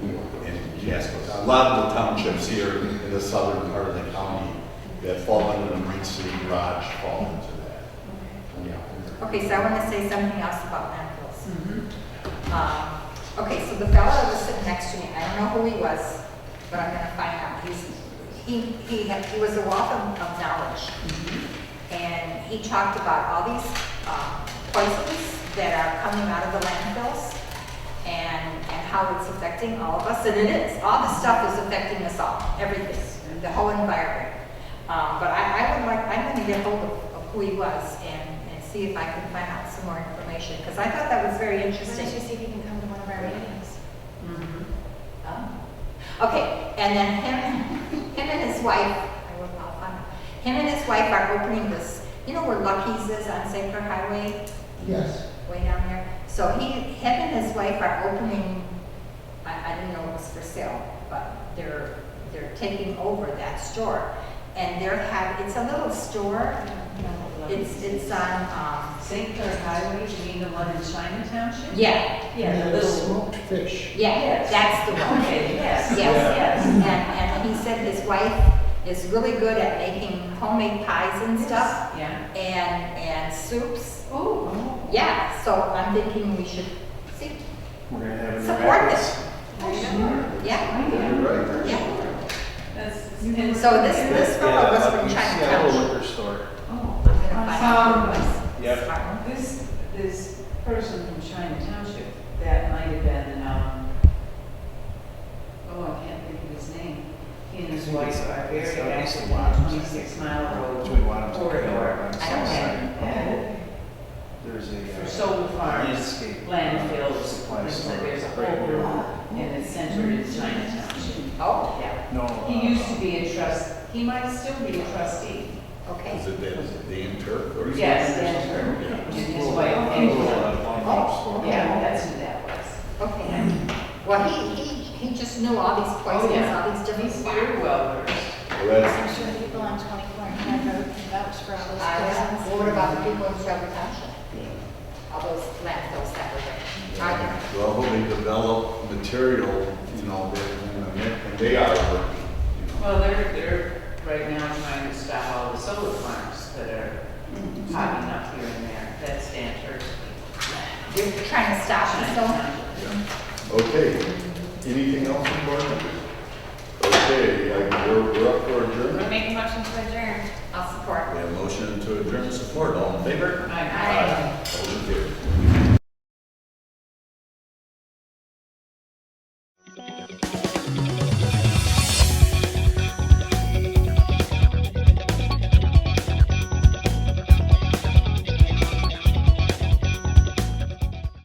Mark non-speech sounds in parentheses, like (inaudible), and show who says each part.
Speaker 1: Yes, a lot of the townships here in the southern part of the county that fall under the Marine City Garage fall into that. Yeah.
Speaker 2: Okay, so I want to say something else about landfills. Um, Okay, so the fellow that was sitting next to me, I don't know who he was, but I'm gonna find out. He's, he, he, had- he was a wealth of of knowledge. And he talked about all these uh, poisons that are coming out of the landfills and, and how it's affecting all of us, and it is. All this stuff is affecting us all, everything, the whole environment. Uh, But I, I would like, I'm gonna get hold of of who he was and, and see if I can find out some more information, because I thought that was very
Speaker 3: Why
Speaker 2: interesting.
Speaker 3: don't you see if you can come to one of our meetings?
Speaker 2: Mm-hmm. Oh. Okay, and then him, (laughs) him and his wife, I will, I'll find out. Him and his wife are opening this, you know where Lucky's is on Sacred Highway,
Speaker 4: Yes.
Speaker 2: way down there? So he, him and his wife are opening, I, I didn't know it was for sale, but they're, they're taking over that store. And they're having, it's a little store, it's, it's on, um,
Speaker 5: St. Clair Highway, you mean the one in China Township?
Speaker 2: yeah,
Speaker 5: Yeah,
Speaker 4: And
Speaker 5: the
Speaker 4: the
Speaker 5: little.
Speaker 4: smoked fish.
Speaker 2: yeah,
Speaker 5: Yes.
Speaker 2: that's the one.
Speaker 5: Okay, yes,
Speaker 2: Yes,
Speaker 5: yes.
Speaker 2: and, and he said his wife is really good at making homemade pies and stuff
Speaker 5: Yeah.
Speaker 2: and, and soups.
Speaker 5: Oh.
Speaker 2: Yeah, so I'm thinking we should see,
Speaker 1: We're gonna have it in the
Speaker 2: Support
Speaker 1: rapids.
Speaker 5: Oh,
Speaker 2: yeah.
Speaker 1: You're right.
Speaker 2: Yeah.
Speaker 5: That's.
Speaker 2: And so this, this fellow was from
Speaker 6: Seattle
Speaker 2: Chinatown. Um,
Speaker 6: liquor store.
Speaker 5: Oh.
Speaker 2: I'm gonna find out who it was.
Speaker 6: Yep.
Speaker 2: Smart.
Speaker 5: Um, This, this person from China Township, that might have been, um, oh, I can't think of his name. He and his wife are very active in the twenty-six mile road.
Speaker 6: Between Wanhams and
Speaker 5: Corridor.
Speaker 6: Clearwater.
Speaker 2: I don't
Speaker 5: Yeah.
Speaker 6: There's a.
Speaker 5: For
Speaker 6: uh,
Speaker 5: solar farms,
Speaker 6: landscape, uh,
Speaker 5: landfills,
Speaker 6: Supply
Speaker 5: and so
Speaker 6: store.
Speaker 5: there's a
Speaker 6: right
Speaker 5: whole
Speaker 6: here.
Speaker 5: lot, and it's centered in China Township.
Speaker 2: Oh,
Speaker 5: Yeah.
Speaker 6: No. uh,
Speaker 5: He used to be a trust, he might still be a trustee.
Speaker 2: okay.
Speaker 1: Is it, Dan- is it Dan Turk or? is it-
Speaker 5: Yes, that's true. And his
Speaker 6: Little,
Speaker 2: Oh,
Speaker 5: wife,
Speaker 6: uh, little, uh,
Speaker 5: and,
Speaker 6: farmhouse store.
Speaker 5: yeah, that's who that was.
Speaker 2: Okay. Well, he, he, he just knew all these poisons, all these different.
Speaker 5: Oh, He's very well versed.
Speaker 1: Well, that's-
Speaker 3: I'm sure the people on 24 and High Road can vouch for all those
Speaker 2: Uh,
Speaker 3: poisons.
Speaker 2: What about the people in Shelby Township? All those landfills that were there? Are there?
Speaker 1: Well, they develop material, you know, that- and they are working, you know.
Speaker 5: Well, they're, they're right now trying to stop all the solar farms that are popping up here and there. That's Dan Turkey.
Speaker 2: You're trying to stop me, so.
Speaker 1: Yeah. Okay, anything else from board members? Okay, I- we're, we're up for adjournment.
Speaker 3: Make a motion to adjourn.
Speaker 2: I'll support.
Speaker 1: We have motion to adjourn support, all in favor?
Speaker 5: Aye.
Speaker 1: Motion carried.